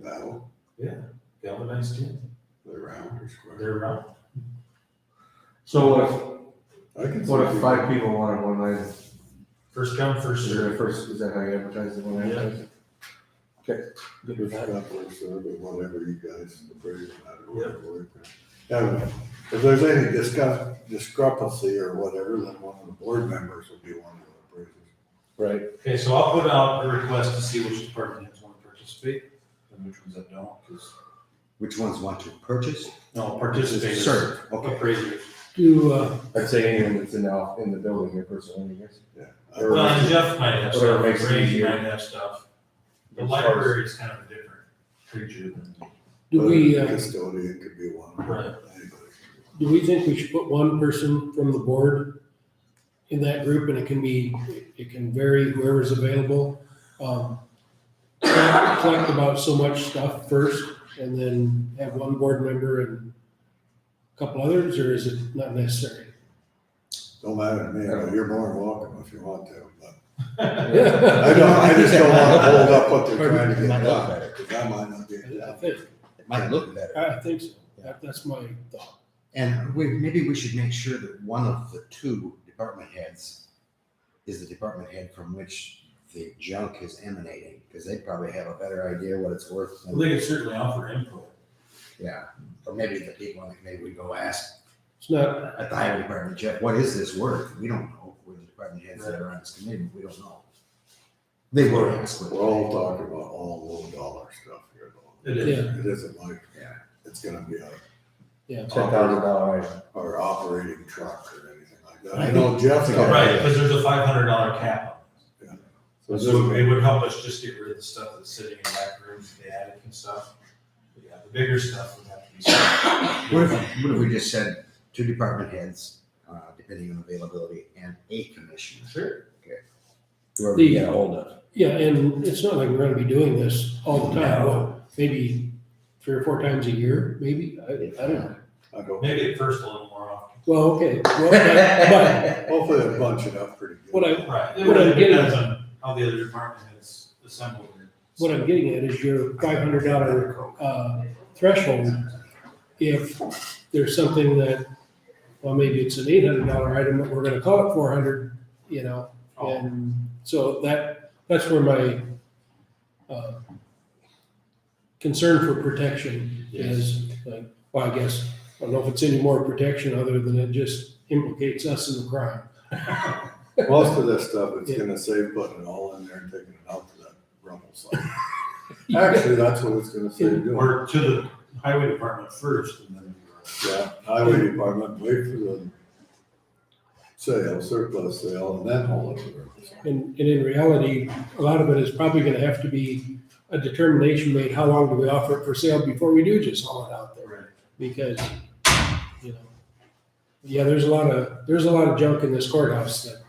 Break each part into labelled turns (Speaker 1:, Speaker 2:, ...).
Speaker 1: metal,
Speaker 2: Yeah, galvanized tin,
Speaker 1: they're round or square.
Speaker 2: they're round.
Speaker 3: So what
Speaker 1: I can
Speaker 3: if,
Speaker 1: see
Speaker 3: what if
Speaker 1: people-
Speaker 3: five people wanted one night,
Speaker 2: First come, first
Speaker 3: is there a
Speaker 2: served.
Speaker 3: first, is that how you advertise it, when I
Speaker 2: Yeah.
Speaker 3: advertise?
Speaker 1: There's a couple of stuff, but whatever you guys agree, I don't know. whatever. And if there's any discuss, discrepancy or whatever, then one of the board members will be one of the appraisers.
Speaker 3: Right.
Speaker 2: Okay, so I'll put out a request to see which departments want to participate and which ones that don't, because,
Speaker 4: Which ones want to purchase?
Speaker 2: no, participators.
Speaker 4: Serve, okay.
Speaker 2: Appraisers.
Speaker 5: Do, uh,
Speaker 3: I'd say anyone that's in the, in the building, your personal one, I guess. Or-
Speaker 2: Well, and Jeff might have
Speaker 3: Whatever
Speaker 2: stuff,
Speaker 3: makes it
Speaker 2: Ray
Speaker 3: easier.
Speaker 2: might have stuff. The
Speaker 3: As far as-
Speaker 2: library is kind of a different creature than.
Speaker 5: do we, uh,
Speaker 1: Custodian could be one.
Speaker 2: Right.
Speaker 1: Anybody.
Speaker 5: do we think we should put one person from the board in that group and it can be, it can vary whoever's available? Um, Collect about so much stuff first and then have one board member and a couple others, or is it not necessary?
Speaker 1: Don't matter to me, but you're more than welcome if you want to, but I
Speaker 5: I
Speaker 1: don't, I just don't wanna hold up what they're
Speaker 4: Pardon?
Speaker 1: trying to get done,
Speaker 4: Might look better.
Speaker 1: because that might not be enough.
Speaker 5: think,
Speaker 4: It might look better.
Speaker 5: I think so. That, that's my thought.
Speaker 4: And we, maybe we should make sure that one of the two department heads is the department head from which the junk is emanating, because they probably have a better idea what it's worth.
Speaker 2: Well, They
Speaker 4: than-
Speaker 2: could certainly offer input.
Speaker 4: Yeah, or maybe the people, on the committee we go ask
Speaker 5: It's not,
Speaker 4: at the highway department, Jeff, what is this worth? We don't know. We're the department heads that are on this committee, we don't know. They were asked. what-
Speaker 1: We're all talking about all low dollar stuff here though.
Speaker 2: It
Speaker 5: is.
Speaker 1: It isn't like,
Speaker 4: Yeah.
Speaker 1: it's gonna be a
Speaker 3: Ten thousand dollar item.
Speaker 1: or operating truck or anything like that.
Speaker 4: I
Speaker 1: I know Jeff's got.
Speaker 2: Right, because there's a five hundred dollar cap
Speaker 1: So
Speaker 2: on it.
Speaker 1: this-
Speaker 2: So it would help us just get rid of the stuff that's sitting in back rooms, the attic and stuff. But Yeah, the bigger stuff would have to be. sold.
Speaker 4: What if, what if we just said two department heads, uh, depending on availability, and a commissioner,
Speaker 2: Sure.
Speaker 4: whoever we get ahold of?
Speaker 5: Yeah, and it's not like we're gonna be doing this all the time,
Speaker 2: No.
Speaker 5: maybe three or four times a year, maybe, I, I don't know.
Speaker 1: I go,
Speaker 2: Maybe at first a little more often.
Speaker 5: Well, okay, well,
Speaker 1: hopefully they bunch it up pretty good.
Speaker 5: but what I,
Speaker 2: Right.
Speaker 5: What I'm
Speaker 2: It
Speaker 5: getting-
Speaker 2: depends on how the other department has assembled it.
Speaker 5: what I'm getting at is your five hundred dollar, uh, threshold. If there's something that, well, maybe it's an eight hundred dollar item, but we're gonna call it four hundred, you know?
Speaker 2: Oh.
Speaker 5: And so that, that's where my, uh, concern for protection is, like, well, I guess, I don't know if it's any more protection other than it just implicates us in the crime.
Speaker 1: Most of this stuff, it's
Speaker 5: Yeah.
Speaker 1: gonna save putting it all in there and taking it out to that rumble site. Actually, that's what it's gonna save doing.
Speaker 2: Or to the highway department first and then.
Speaker 1: Yeah, highway department, wait for the sale, surplus sale, and then haul it to the rumble site.
Speaker 5: And, and in reality, a lot of it is probably gonna have to be a determination made, how long do we offer it for sale before we do just haul it out there?
Speaker 2: Right.
Speaker 5: Because, you know, yeah, there's a lot of, there's a lot of junk in this courthouse that,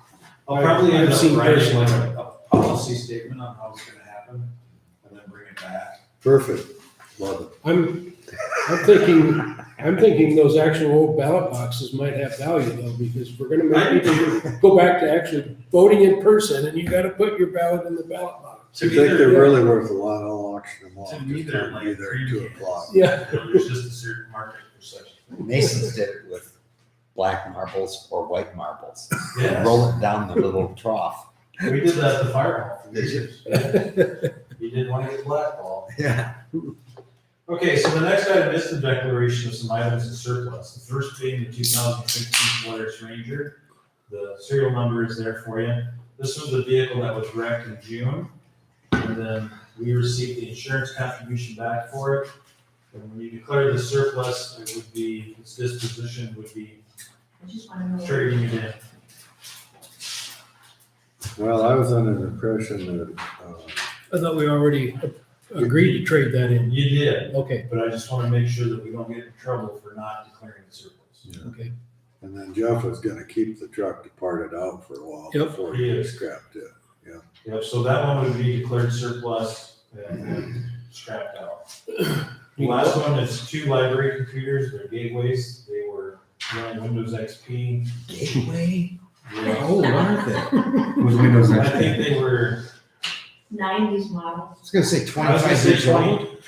Speaker 2: I'll probably
Speaker 5: I've
Speaker 2: end up
Speaker 5: seen
Speaker 2: writing
Speaker 5: personally.
Speaker 2: like a a policy statement on how it's gonna happen and then bring it back.
Speaker 1: Perfect, love it.
Speaker 5: I'm, I'm thinking, I'm thinking those actual old ballot boxes might have value though, because if we're gonna make people go back to actually voting in person, and you gotta put your ballot in the ballot box.
Speaker 2: To
Speaker 1: You
Speaker 2: me,
Speaker 1: think they're
Speaker 2: there-
Speaker 1: really worth a lot, I'll auction them off.
Speaker 2: To me,
Speaker 1: Just
Speaker 2: they're
Speaker 1: don't be
Speaker 2: like
Speaker 1: there
Speaker 2: cream
Speaker 1: at Two
Speaker 2: cans.
Speaker 1: o'clock.
Speaker 5: Yeah,
Speaker 2: There's just a certain market for such.
Speaker 4: Masons did it with black marbles or white marbles.
Speaker 2: Yeah,
Speaker 4: Roll it down the little trough.
Speaker 2: we did that at the fire hall.
Speaker 4: Did you?
Speaker 2: You didn't want to get blackballed.
Speaker 4: Yeah.
Speaker 2: Okay, so the next item is the declaration of some items in surplus. The first being the two thousand fifteen Polaris Ranger. The serial number is there for you. This was the vehicle that was wrecked in June. And then we received the insurance contribution back for it. And when you declare the surplus, it would be, its disposition would be
Speaker 6: I just wanna know.
Speaker 2: trading it in.
Speaker 1: Well, I was under the impression that, uh,
Speaker 5: I thought we already agreed to trade that in.
Speaker 2: You did,
Speaker 5: Okay,
Speaker 2: but I just want to make sure that we don't get in trouble for not declaring the surplus.
Speaker 5: okay.
Speaker 1: And then Jeff was gonna keep the truck departed out for a while
Speaker 5: Yep.
Speaker 1: before he scrapped it.
Speaker 2: Yep, so that one would be declared surplus and scrapped out. The Last one is two library computers, they're gateways, they were running Windows XP.
Speaker 4: Gateway? How
Speaker 2: Yeah.
Speaker 4: old are they? Was Windows
Speaker 2: I think they were,
Speaker 6: Nineties model.
Speaker 4: I was gonna say
Speaker 2: I was gonna
Speaker 4: twenty-five
Speaker 2: say
Speaker 4: years old.
Speaker 2: twenty,